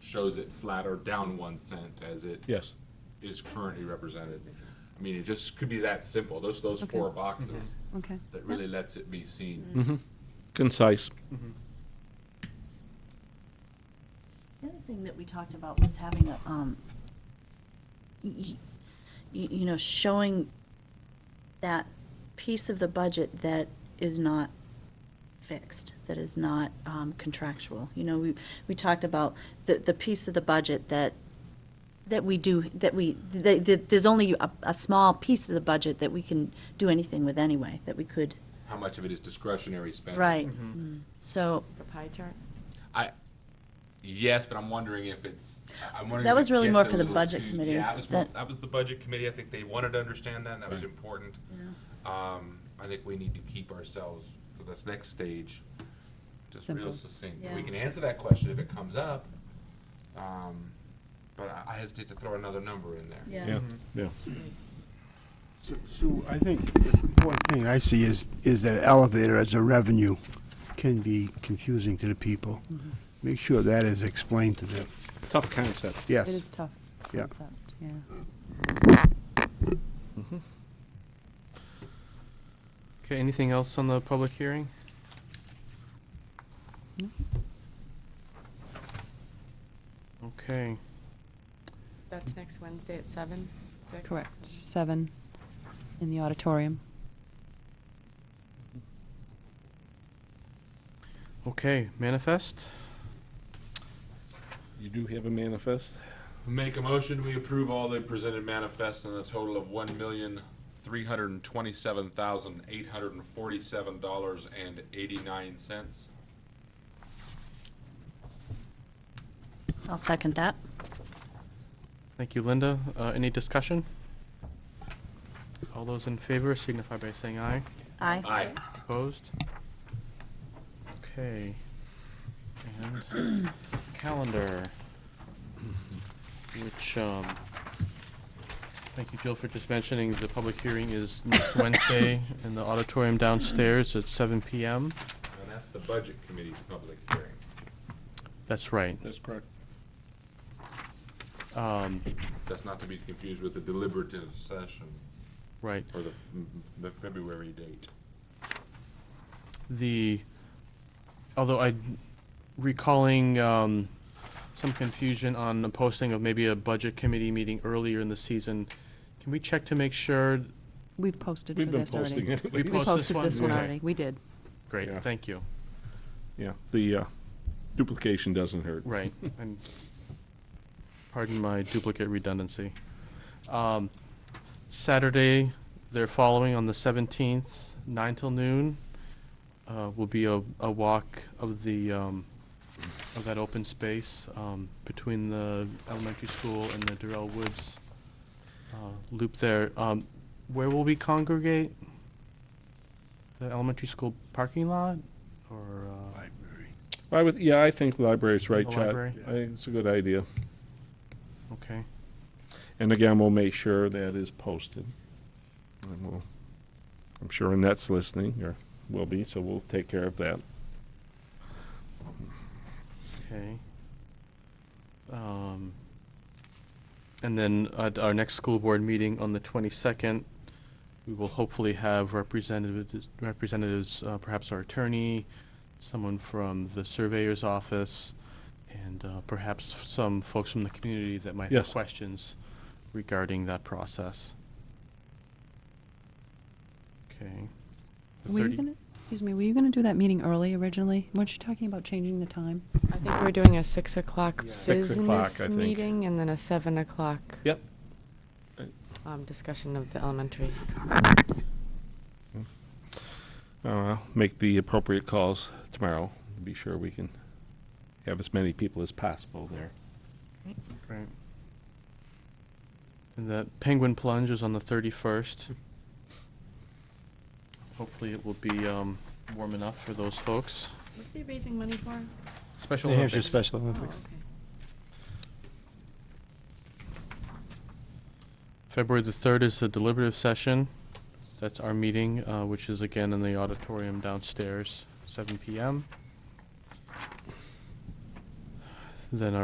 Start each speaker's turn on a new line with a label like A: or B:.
A: shows it flat or down one cent as it
B: Yes.
A: is currently represented. I mean, it just could be that simple, those, those
C: Okay. Mm-hmm.
A: four boxes
C: Okay.
A: that really lets it be seen.
B: Mm-hmm. Concise.
D: The other thing that we talked about was having a, um, y- y- you know, showing that piece of the budget that is not fixed, that is not um, contractual. You know, we, we talked about the, the piece of the budget that, that we do, that we, that, that there's only a, a small piece of the budget that we can do anything with anyway, that we could,
A: How much of it is discretionary spending?
D: right. So,
E: The pie chart?
A: I, yes, but I'm wondering if it's, I- I'm wondering.
D: That
A: if
D: was
A: it
D: really
A: gets
D: more
A: a
D: for the
A: little
D: budget
A: too-
D: committee,
A: Yeah, that was,
D: that-
A: that was the budget committee. I think they wanted to understand that, and that was important. Um, I think we need to keep ourselves for this next stage, just real
C: Simple.
A: succinct. We
D: Yeah.
A: can answer that question if it comes up. Um, but I I hesitate to throw another number in there.
B: Yeah, Mm-hmm. yeah.
F: So- Sue, I think the important thing I see is, is that elevator as a revenue can be confusing to the people.
C: Mm-hmm.
F: Make sure that is explained to them.
B: Tough concept.
C: It is
F: Yes.
C: tough
F: Yeah.
C: concept, yeah.
G: Okay, anything else on the public hearing? Okay,
E: That's next Wednesday at seven, six?
C: Correct. Seven in the auditorium.
G: okay, manifest?
B: You do have a manifest?
A: Make a motion, we approve all the presented manifests in a total of one million, three hundred and twenty-seven thousand, eight hundred and forty-seven dollars and eighty-nine cents.
D: I'll second that.
G: Thank you, Linda. Uh, any discussion? All those in favor signify by saying aye.
D: Aye.
A: Aye.
G: Opposed? Okay. And calendar, which, um, thank you, Jill, for just mentioning the public hearing is next Wednesday in the auditorium downstairs at seven PM.
A: And that's the budget committee's public hearing.
G: That's right.
B: That's correct.
G: Um,
A: That's not to be confused with the deliberative session
G: right.
A: or the, the February date.
G: the, although I recalling um, some confusion on the posting of maybe a budget committee meeting earlier in the season, can we check to make sure?
C: We've posted for
B: We've been
C: this already.
B: posting it.
G: We
C: We
G: Post this
C: posted
G: one?
C: this one
G: Okay.
C: already. We did.
G: Great,
B: Yeah.
G: thank you.
B: Yeah, the uh, duplication doesn't hurt.
G: Right, and pardon my duplicate redundancy. Um, Saturday, they're following on the seventeenth, nine till noon, uh, will be a, a walk of the, um, of that open space, um, between the elementary school and the Durrell Woods, uh, loop there. Um, where will we congregate? The elementary school parking lot, or, uh,
F: Library.
B: I would, yeah, I think library's right,
G: The
B: Chad.
G: library?
B: I think it's a good idea.
G: okay?
B: And again, we'll make sure that is posted. And we'll, I'm sure Annette's listening, or will be, so we'll take care of that.
G: Okay. Um, and then at our next school board meeting on the twenty-second, we will hopefully have representatives, representatives, uh, perhaps our attorney, someone from the surveyor's office, and, uh, perhaps some folks from the community that might have
B: Yes.
G: questions regarding that process. Okay. The
C: Were you
G: 30
C: gonna, excuse me, were you gonna do that meeting early originally? Weren't you talking about changing the time?
E: I think we're doing a six o'clock
B: Six o'clock, I
E: business
B: think.
E: meeting and then a seven o'clock
B: Yep.
E: um, discussion of the elementary.
B: Uh, I'll make the appropriate calls tomorrow, to be sure we can have as many people as possible there.
G: Right. And the penguin plunge is on the thirty-first. Hopefully it will be, um, warm enough for those folks.
E: What are they raising money for?
G: Special
H: New Hampshire
G: Olympics.
H: Special Olympics.
E: Oh,
G: February the third is the deliberative session. That's our meeting, uh, which is again in the auditorium downstairs, seven PM. Then our